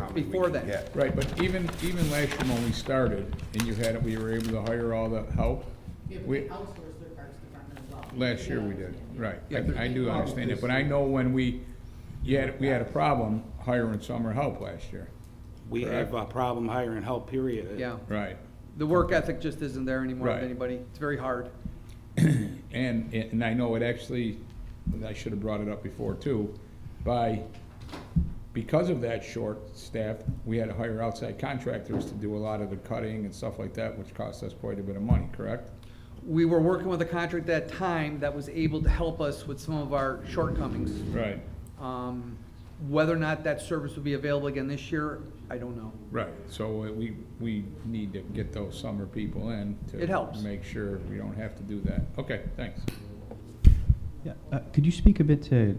talked before then. Yeah. Right, but even, even last year when we started, and you had, it, we were able to hire all the help. Yeah, but We- they outsourced their parks department as well. Last year we did, right. Yeah. I I do understand it, but I know when we, you had, we had a problem hiring summer help last year. We have a problem hiring help, period. Yeah. Right. The work ethic just isn't there anymore with Right. anybody. It's very hard. And, and I know it actually, and I should have brought it up before too, by, because of that short staff, we had to hire outside contractors to do a lot of the cutting and stuff like that, which cost us quite a bit of money, correct? We were working with a contractor at that time that was able to help us with some of our shortcomings. Right. Um, Whether or not that service will be available again this year, I don't know. Right, so uh, we, we need to get those summer people in to. It helps. Make sure we don't have to do that. Okay, thanks. Yeah, uh, Could you speak a bit to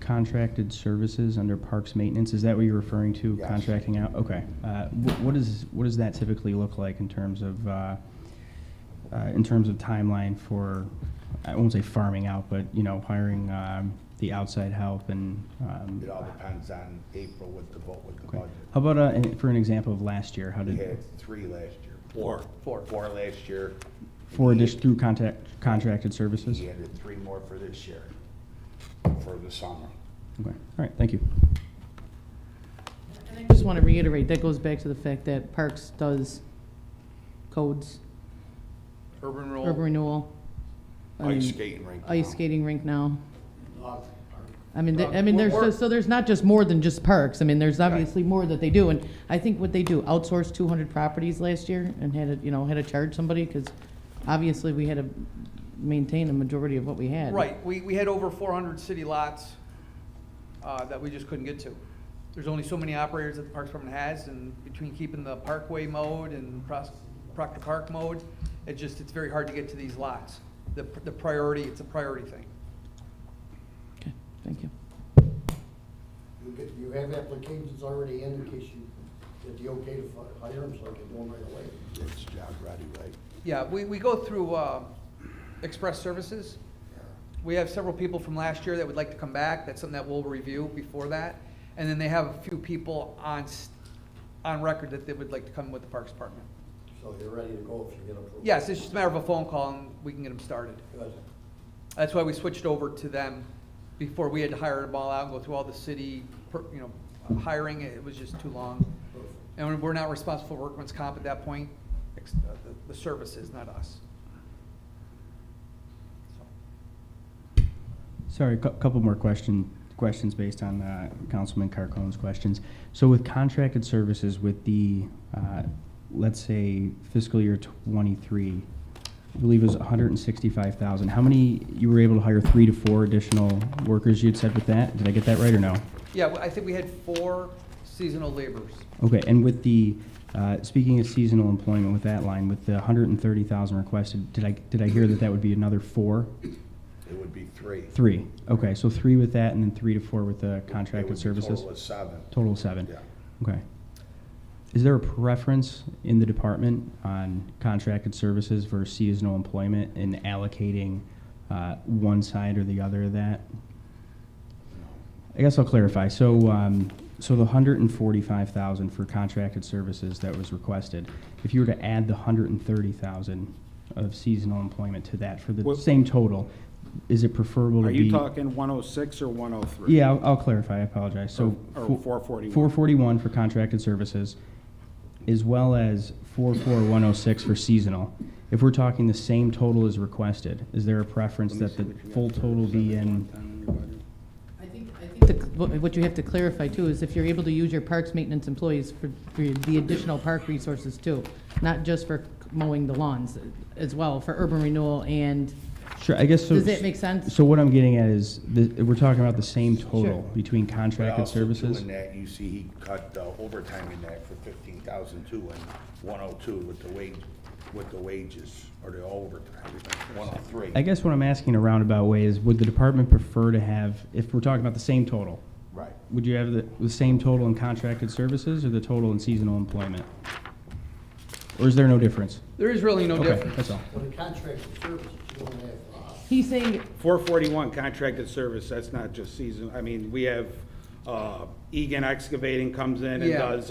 contracted services under parks maintenance? Is that what you're referring to, Yes. contracting out? Okay. Uh, wh- What is, what does that typically look like in terms of, uh, uh, in terms of timeline for, I won't say farming out, but, you know, hiring um, the outside help and? um, It all depends on April with the vote, with the okay. budget. How about, uh, an- for an example of last year, how We did, had three last year. Four. Four. Four last year. for addition, through contact, contracted services? We added three more for this year, for the summer. Okay, all right, thank you. And I just want to reiterate, that goes back to the fact that Parks does codes, Urban roll. urban renewal. I Ice mean, skating rink. Ice now. skating rink now. I mean, th- I mean, Uh, there's, we're- just- so there's not just more than just parks. I mean, there's obviously more that they do. And I think what they do, outsourced two hundred properties last year and had to, you know, had to charge somebody because obviously we had to maintain a majority of what we had. Right, we, we had over four hundred city lots, uh, that we just couldn't get to. There's only so many operators that the Parks Department has, and between keeping the Parkway mode and Pros- Proctor Park mode, it just, it's very hard to get to these lots. The, the priority, it's a priority thing. Okay, Thank you. You get, you have applications already in in case you, if you okay to fi- hire them, so I can do them right away. It's job ready, right? Yeah, we, we go through, uh, express services. We have several people from last year that would like to come back, that's something that we'll review before that. And then they have a few people on, s- on record that they would like to come with the Parks Department. So you're ready to go if you get approved. Yes, it's just a matter of a phone call and we can get them started. Good. That's why we switched over to them before we had to hire them all out and go through all the city, per- you know, hiring, it was just too long. Perfect. And we're not responsible for workman's comp at that point, ex- uh, the, the services, not us. Sorry, a couple more question, questions based on uh, Councilman Carcone's questions. So with contracted services, with the, uh, let's say fiscal year '23, I believe it was 165,000, how many, you were able to hire three to four additional workers, you'd said with that? Did I get that right or no? Yeah, well, I think we had four seasonal laborers. Okay, and with the, uh, speaking of seasonal employment with that line, with the 130,000 requested, did I, did I hear that that would be another four? It would be three. Three, okay, so three with that and then three to four with the It would contracted be services? Total of seven. Total of seven? Yeah. Okay. Is there a preference in the department on contracted services versus seasonal employment in allocating uh, one side or the other of that? I guess I'll clarify. So, um, so the hundred and forty-five thousand for contracted services that was requested, if you were to add the hundred and thirty thousand of seasonal employment to that for the What- same total, is it preferable to Are be? you talking 106 or 103? Yeah, I'll, I'll clarify, I apologize, so. Or- or 441. Four forty-one for contracted services, as well as four four one oh six for seasonal. If we're talking the same total as requested, is there a preference that the full total be in? I think, I think. the- What what you have to clarify too is if you're able to use your parks maintenance employees for, for the additional park resources too, not just for mowing the lawns as well, for urban renewal and, Sure, I guess so. does that make sense? So what I'm getting at is, the, we're talking about the same total Sure. between But contracted also too, services? In that, you see he cut the overtime in that for fifteen thousand two and one oh two with the wage, with the wages, or the overtime, one oh three. I guess what I'm asking in a roundabout way is, would the department prefer to have, if we're talking about the same total, Right. would you have the, the same total in contracted services or the total in seasonal employment? Or is there no difference? There is really no Okay, difference. that's all. For the contracted services, you don't have, uh, he's saying 441 contracted service, that's not just season, I mean, we have uh, Egan Excavating comes in and Yeah. does